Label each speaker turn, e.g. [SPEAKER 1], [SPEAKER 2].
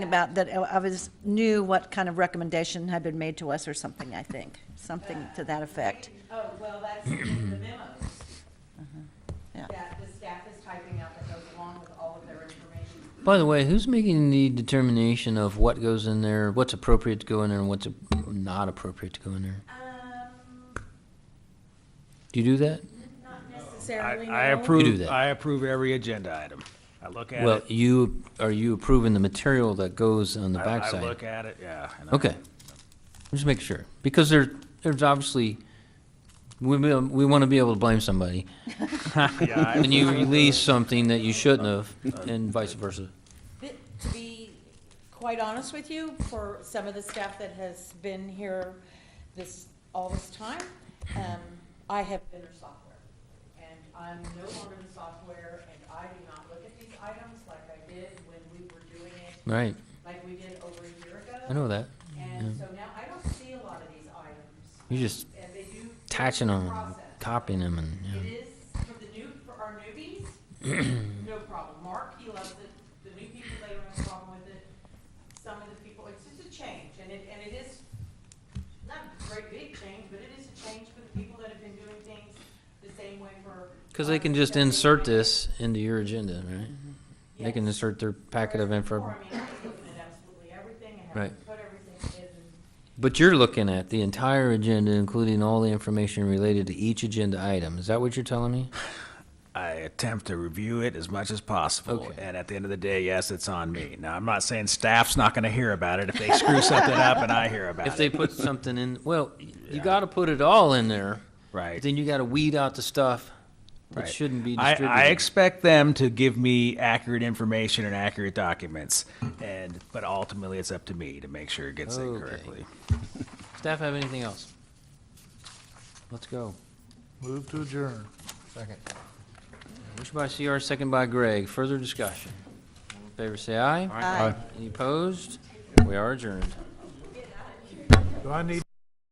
[SPEAKER 1] about that I was, knew what kind of recommendation had been made to us or something, I think, something to that effect.
[SPEAKER 2] Oh, well, that's in the memos
[SPEAKER 1] Yeah.
[SPEAKER 2] that the staff is typing out that goes along with all of their information.
[SPEAKER 3] By the way, who's making the determination of what goes in there, what's appropriate to go in there, and what's not appropriate to go in there?
[SPEAKER 2] Um,
[SPEAKER 3] Do you do that?
[SPEAKER 2] not
[SPEAKER 4] I,
[SPEAKER 2] necessarily,
[SPEAKER 4] I
[SPEAKER 2] no.
[SPEAKER 3] You do
[SPEAKER 4] approve,
[SPEAKER 3] that.
[SPEAKER 4] I approve every agenda item. I look at
[SPEAKER 3] Well,
[SPEAKER 4] it.
[SPEAKER 3] you, are you approving the material that goes on the
[SPEAKER 4] I-
[SPEAKER 3] backside?
[SPEAKER 4] I look at it, yeah. and I-
[SPEAKER 3] Okay. Just make sure, because there, there's obviously, we, will- we want to be able to blame somebody.
[SPEAKER 4] Yeah, I
[SPEAKER 3] When you release something that you shouldn't have, and vice versa.
[SPEAKER 2] Th- To be quite honest with you, for some of the staff that has been here this, all this time, um, I have been their software. And I'm no longer the software, and I do not look at these items like I did when we were doing it,
[SPEAKER 3] Right,
[SPEAKER 2] like we did over a year ago.
[SPEAKER 3] I know that.
[SPEAKER 2] And so now I don't see a lot of these items.
[SPEAKER 3] You're just
[SPEAKER 2] And they do.
[SPEAKER 3] Attaching them,
[SPEAKER 2] Process.
[SPEAKER 3] copying them, and,
[SPEAKER 2] It
[SPEAKER 3] yeah.
[SPEAKER 2] is for the new, for our newbies, no problem. Mark, he loves it. The new people, they don't have a problem with it. Some of the people, it's just a change and it, and it is not a great big change, but it is a change for the people that have been doing things the same way for.
[SPEAKER 3] Because they can just insert this into your agenda, right? They can insert their packet of
[SPEAKER 2] Or,
[SPEAKER 3] info,
[SPEAKER 2] I mean, I was looking at absolutely everything and having
[SPEAKER 3] Right.
[SPEAKER 2] to put everything in and
[SPEAKER 3] but you're looking at the entire agenda, including all the information related to each agenda item. Is that what you're telling me?
[SPEAKER 4] I attempt to review it as much as possible,
[SPEAKER 3] Okay.
[SPEAKER 4] and at the end of the day, yes, it's on me. Now, I'm not saying staff's not gonna hear about it if they screw something up and I hear about
[SPEAKER 3] If they
[SPEAKER 4] it.
[SPEAKER 3] put something in, well, you gotta put it all in there.
[SPEAKER 4] Right.
[SPEAKER 3] Then you gotta weed out the stuff that
[SPEAKER 4] Right.
[SPEAKER 3] shouldn't be
[SPEAKER 4] I,
[SPEAKER 3] distributed.
[SPEAKER 4] I expect them to give me accurate information and accurate documents, and, but ultimately, it's up to me to make sure it gets in
[SPEAKER 3] Okay.
[SPEAKER 4] correctly.
[SPEAKER 3] Staff have anything else? Let's go.
[SPEAKER 5] Move to adjourn. Second.
[SPEAKER 3] Motion by CR, second by Greg. Further discussion. All in Favor say aye.
[SPEAKER 1] Aye.
[SPEAKER 3] Any opposed? We are adjourned.
[SPEAKER 5] Do I need